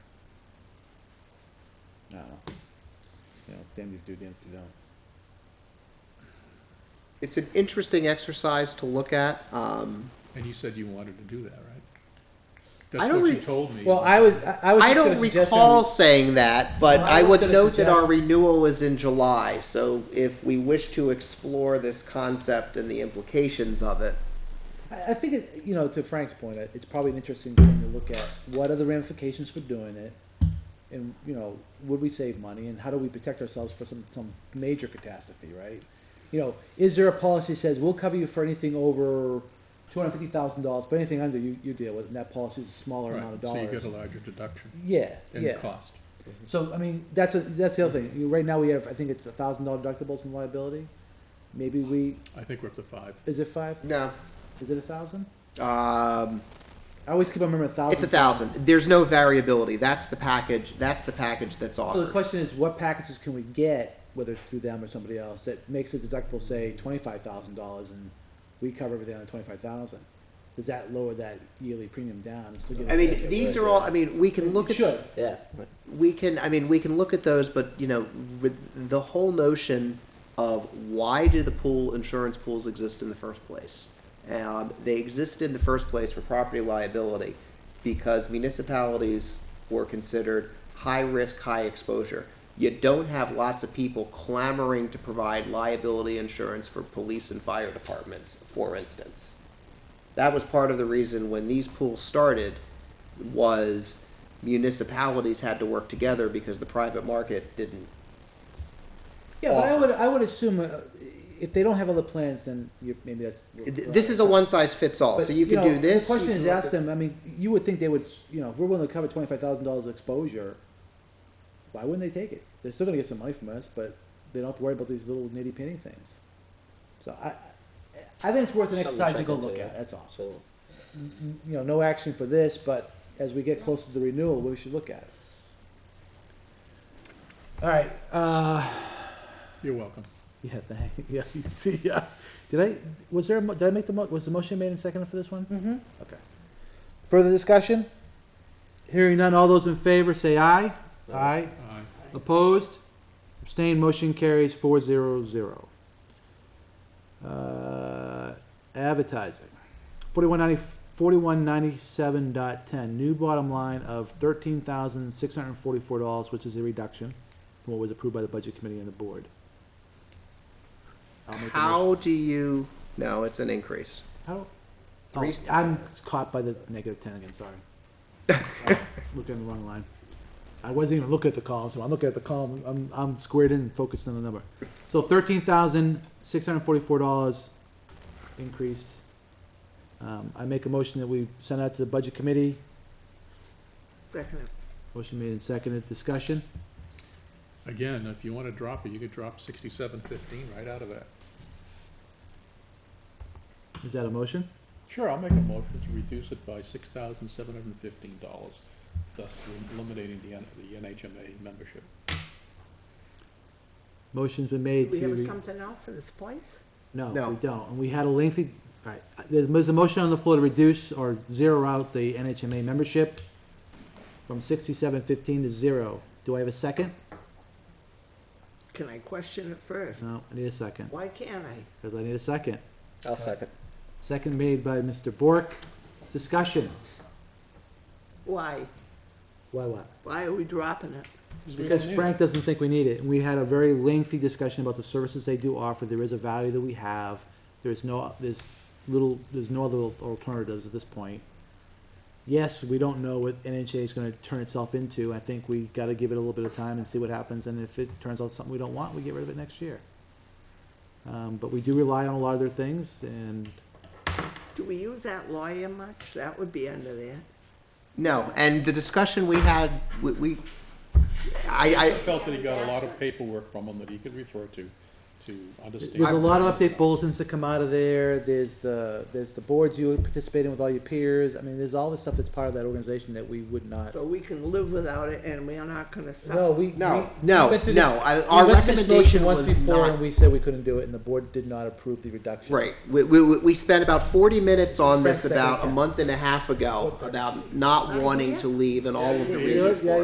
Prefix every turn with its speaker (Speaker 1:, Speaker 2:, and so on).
Speaker 1: I don't know. It's, You know, it's damned if you do, damned if you don't.
Speaker 2: It's an interesting exercise to look at. Um,
Speaker 3: And you said you wanted to do that, right?
Speaker 2: I
Speaker 3: That's
Speaker 2: don't
Speaker 3: what you
Speaker 2: re-
Speaker 3: told me.
Speaker 1: Well, I was, I was
Speaker 2: I don't recall saying that, but
Speaker 1: Well, I
Speaker 2: I
Speaker 1: was
Speaker 2: would
Speaker 1: gonna
Speaker 2: note that our
Speaker 1: suggest-
Speaker 2: renewal is in July, so if we wish to explore this concept and the implications of it,
Speaker 1: I, I think, it, you know, to Frank's point, it- it's probably an interesting thing to look at. What are the ramifications for doing it? And, you know, would we save money and how do we protect ourselves for some, some major catastrophe, right? You know, is there a policy that says we'll cover you for anything over two hundred fifty thousand dollars, but anything under you, you deal with, and that policy is a smaller amount of
Speaker 3: Right, so you
Speaker 1: dollars?
Speaker 3: get a larger deduction
Speaker 1: Yeah,
Speaker 3: in
Speaker 1: yeah.
Speaker 3: cost.
Speaker 1: So, I mean, that's, a- that's the other thing. You- Right now, we have, I think it's a thousand dollar deductibles in liability. Maybe we,
Speaker 3: I think we're up to five.
Speaker 1: is it five?
Speaker 2: no.
Speaker 1: Is it a thousand?
Speaker 2: Um,
Speaker 1: I always keep on remembering a thousand.
Speaker 2: it's a thousand. There's no variability. That's the package. That's the package that's
Speaker 1: So the
Speaker 2: offered.
Speaker 1: question is, what packages can we get, whether it's through them or somebody else, that makes the deductible, say, twenty-five thousand dollars and we cover everything on twenty-five thousand? Does that lower that yearly premium down? and still give us
Speaker 2: I
Speaker 1: that-
Speaker 2: mean, these are all. I mean, we can look
Speaker 1: uh, It
Speaker 2: at.
Speaker 1: should.
Speaker 4: Yeah.
Speaker 2: we can i mean we can look at those but you know with the whole notion of why do the pool insurance pools exist in the first place um, they exist in the first place for property liability because municipalities were considered high risk high exposure you don't have lots of people clamoring to provide liability insurance for police and fire departments for instance that was part of the reason when these pools started was municipalities had to work together because the private market didn't.
Speaker 1: Yeah, but I
Speaker 2: Awful.
Speaker 1: would, I would assume, uh, if they don't have other plans, then you, maybe that's.
Speaker 2: This is a one size fits all.
Speaker 1: But,
Speaker 2: Oh, So you can
Speaker 1: know,
Speaker 2: do this.
Speaker 1: The question
Speaker 2: you
Speaker 1: is,
Speaker 2: can look
Speaker 1: ask
Speaker 2: at-
Speaker 1: them, I mean, you would think they would, s- you know, if we're willing to cover twenty-five thousand dollars of exposure, why wouldn't they take it? They're still gonna get some money from us, but they don't have to worry about these little nitty-pitty things. So I, I think it's worth
Speaker 4: Something
Speaker 1: an
Speaker 4: to
Speaker 1: exercise to
Speaker 4: check
Speaker 1: go
Speaker 4: into,
Speaker 1: look
Speaker 4: yeah.
Speaker 1: at, that's all.
Speaker 4: So,
Speaker 1: You know, no action for this, but as we get closer to the renewal, we should look at it. All right, uh,
Speaker 3: You're welcome.
Speaker 1: yeah, thank, yeah, you see, yeah. Did I, was there, a mo- did I make the mo, was the motion made and seconded for this one? Mm-hmm. Okay. Further discussion? Hearing none, all those in favor say aye. Aye.
Speaker 3: Aye.
Speaker 1: Opposed? Abstained, motion carries four zero zero. Uh, advertising. Forty-one ninety, forty-one ninety-seven dot ten, new bottom line of thirteen thousand six hundred and forty-four dollars, which is a reduction from what was approved by the budget committee and the board. I'll make a motion.
Speaker 2: How do you? No, it's an increase.
Speaker 1: How?
Speaker 2: Three-
Speaker 1: Oh, I'm caught by the negative ten again, sorry. Uh, Looked in the wrong line. I wasn't even looking at the column, so I'm looking at the column, I'm, I'm squared in and focused on the number. So thirteen thousand, six hundred and forty-four dollars increased. Um, I make a motion that we send out to the budget committee.
Speaker 5: Second.
Speaker 1: Motion made and seconded, discussion.
Speaker 3: Again, if you want to drop it, you could drop sixty-seven fifteen right out of that.
Speaker 1: Is that a motion?
Speaker 3: Sure, I'll make a motion to reduce it by six thousand seven hundred and fifteen dollars, thus eliminating the, N- the NHMA membership.
Speaker 1: Motion's been made
Speaker 5: We
Speaker 1: to,
Speaker 5: have
Speaker 1: re-
Speaker 5: something else in this place?
Speaker 1: no,
Speaker 2: No.
Speaker 1: we don't, and we had a lengthy, all right, there's, there's a motion on the floor to reduce or zero out the NHMA membership from sixty-seven fifteen to zero. Do I have a second?
Speaker 5: Can I question it first?
Speaker 1: No, I need a second,
Speaker 5: Why can't I?
Speaker 1: because I need a second.
Speaker 4: I'll second.
Speaker 1: Second made by Mr. Bork. Discussion.
Speaker 5: Why?
Speaker 1: Why what?
Speaker 5: Why are we dropping it?
Speaker 1: Because Frank doesn't think we need it, and we had a very lengthy discussion about the services they do offer, there is a value that we have, there's no, there's little, there's no other alternatives at this point. Yes, we don't know what NHA is gonna turn itself into, I think we gotta give it a little bit of time and see what happens, and if it turns out something we don't want, we get rid of it next year. Um, but we do rely on a lot of their things, and
Speaker 5: Do we use that lawyer much? That would be under there.
Speaker 2: No, and the discussion we had, we, we I,
Speaker 3: I felt that he got a lot of paperwork from him that he could refer to, to understand.
Speaker 1: There's a lot of update bulletins that come out of there, there's the, there's the boards you participate in with all your peers, I mean, there's all the stuff that's part of that organization that we would not.
Speaker 5: So we can live without it and we are not gonna
Speaker 1: No,
Speaker 5: suffer.
Speaker 1: we.
Speaker 2: No,
Speaker 1: we-
Speaker 2: no,
Speaker 1: we went through
Speaker 2: no,
Speaker 1: this-
Speaker 2: I-
Speaker 1: we
Speaker 2: our
Speaker 1: went through this motion
Speaker 2: recommendation
Speaker 1: once
Speaker 2: was
Speaker 1: before,
Speaker 2: not-
Speaker 1: And we said we couldn't do it, and the board did not approve the reduction.
Speaker 2: I right. We, we, we spent about forty minutes on this
Speaker 1: Frank, second
Speaker 2: about a
Speaker 1: time.
Speaker 2: month and a half ago about not wanting to leave and all of the
Speaker 1: Yeah,
Speaker 2: reasons
Speaker 1: yeah,
Speaker 2: for it.